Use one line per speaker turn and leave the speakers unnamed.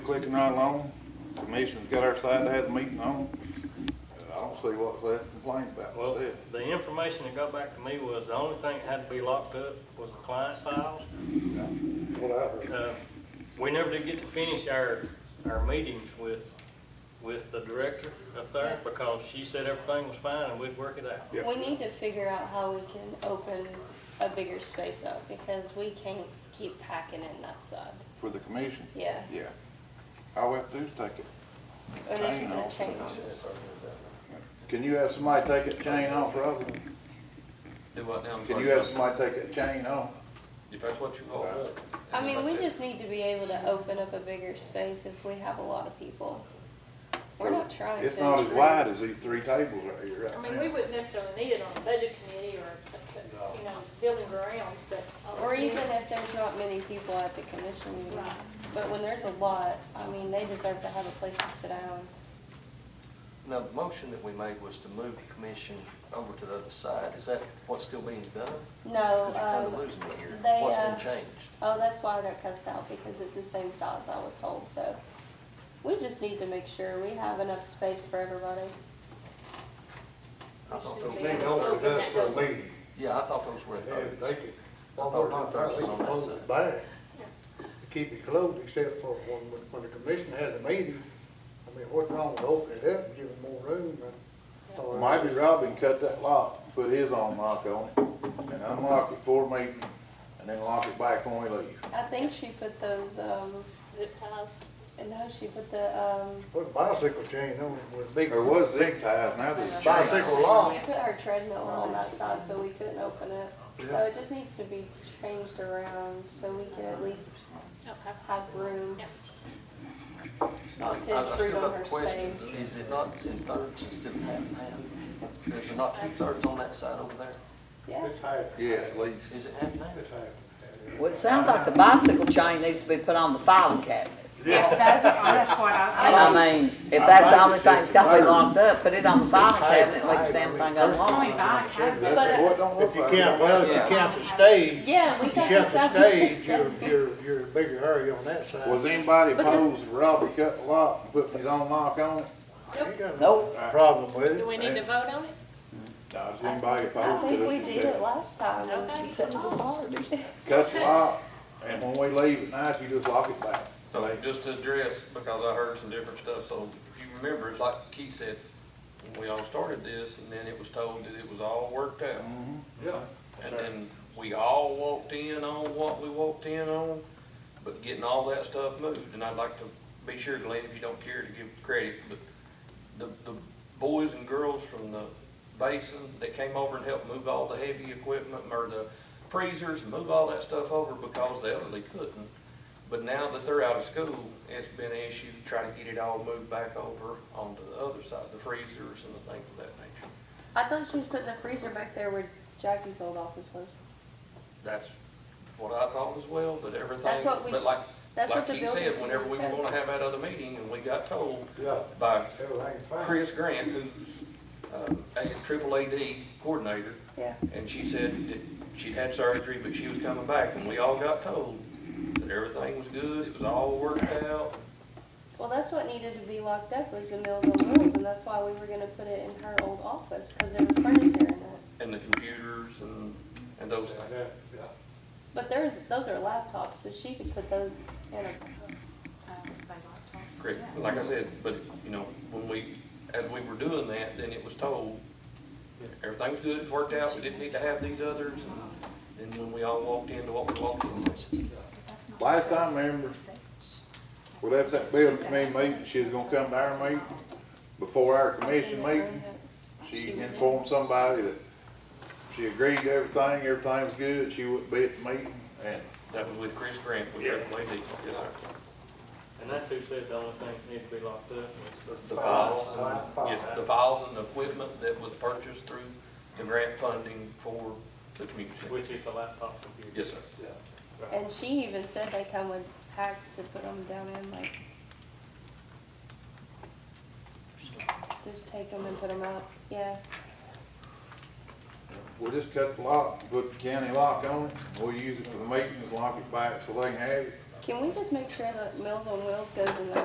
clicking right along. Commission's got our side to have the meeting on. I don't see what's left to complain about,
Well,
that's it.
the information that got back to me was the only thing that had to be locked up was the client files.
What I heard.
Uh, We never did get to finish our, our meetings with, with the director up there because she said everything was fine and we'd work it out.
Yeah.
We need to figure out how we can open a bigger space up because we can't keep packing in that side.
For the commission?
Yeah,
Yeah. All we have to do is take it.
unless
Chain
you're gonna
off.
change.
Can you have somebody take a chain off, Robin?
Do what now? I'm
Can
sorry,
you have
Judge?
somebody take a chain off?
If that's what you want. look.
I mean, we
That's it.
just need to be able to open up a bigger space if we have a lot of people. We're not trying to.
It's not as wide as these three tables right here
I
right
mean, we
now.
wouldn't necessarily need it on the budget committee or, you know, building grounds, but.
Or even if there's not many people at the commission meeting.
Right.
But when there's a lot, I mean, they deserve to have a place to sit down.
Now, the motion that we made was to move the commission over to the other side. Is that what's still being done?
No,
Because you're kind of
um,
losing me here.
they,
What's
uh,
been changed?
Oh, that's why I got cussed out, because it's the same size I was told, so. We just need to make sure we have enough space for everybody.
I thought
Just
those-
need to be able to open that door.
Yeah, I thought those were at
And
thirds.
they could, although not that, they could close it back, keep it closed, except for when, when the commission had a meeting. I mean, what's wrong with opening it up and giving more room? uh, and- or-
Maybe Robin cut that lock, put his own lock on it, and unlock it for me, and then lock it back when we leave.
I think she put those, um,
Zip ties.
no, she put the, um,
Put a bicycle chain on it with a big.
There was zig ties, now there's chains.
Bicycle lock.
she put her treadmill on that side, so we couldn't open it. So it just needs to be changed around, so we can at least
Okay.
have room.
I-
Not to
I I still
intrude on
got
her
the question.
space.
Is it not in thirds instead of half and half? Is there not two thirds on that side over there?
Yeah,
It's happened,
Yeah, at least.
Is it half and half?
it's happened.
Well, it sounds like the bicycle chain needs to be put on the filing cabinet.
That's, that's what
And
I,
I mean, if that's the only
think it's
thing that's gotta be
just
locked up, put it on the filing cabinet, let the damn thing go
I mean,
along.
I have.
That's
But, uh,
what don't look
If you
like
count,
it.
well, if you count the stage,
yeah, we
if you
got
count
this
the
up.
stage, you're, you're, you're in a bigger hurry on that side.
Was anybody
But the-
opposed to Robbie cut the lock and putting his own lock on it?
You ain't got no
Nope,
problem with
Do
it.
we need to vote on it?
No. Was anybody
I
opposed to it?
think we did it last time.
Okay.
it's a party.
Cut the lock, and when we leave at night, you just lock it back.
So just to address, because I heard some different stuff, so if you remember, it's like Keith said, when we all started this, and then it was told that it was all worked out.
Mm-hmm.
Yeah.
And then we all walked in on what we walked in on, but getting all that stuff moved, and I'd like to be sure, Glenn, if you don't care to give credit, but the, the boys and girls from the basin that came over and helped move all the heavy equipment, or the freezers, move all that stuff over because the elderly couldn't. But now that they're out of school, it's been an issue trying to get it all moved back over onto the other side, the freezers and the things of that nature.
I thought she was putting the freezer back there where Jackie's old office was.
That's what I thought as well, but everything.
That's what we-
But like,
That's what
like
the
he
building.
said, whenever we were
committee
gonna
chose.
have that other meeting, and we got told
Yeah,
by
everything's fine.
Chris Grant, who's, uh, a triple AD coordinator,
Yeah,
and she said that she'd had surgery, but she was coming back, and we all got told that everything was good, it was all worked out.
well, that's what needed to be locked up was the Mills on Wheels, and that's why we were gonna put it in her old office, cause there was furniture in it.
and the computers and, and those
Yeah,
things.
yeah, yeah.
But there's, those are laptops, so she could put those in a,
Correct. Like I said, but, you know, when we, as we were doing that, then it was told, everything was good, it's worked out, we didn't need to have these others. And then when we all walked into what we walked in,
Last time, remember, we left that building committee meeting, she was gonna come to our meeting. Before our commission meeting, she
was in.
informed somebody that she agreed to everything, everything was good, she wouldn't be at the meeting, and
that was with Chris Grant, with Triple AD. Yes, sir.
And that's who said the only thing that needed to be locked up was
The
Files,
files,
files.
and, yes, the files and the equipment that was purchased through the grant funding for the community
the,
center.
which is the laptop computer.
Yes, sir.
and she even said they come with packs to put them down in, like. Just take them and put them out, yeah.
we'll just cut the lock, put the county lock on it, and we'll use it for the meetings, lock it back so they can have it.
Can we just make sure that Mills on Wheels goes in the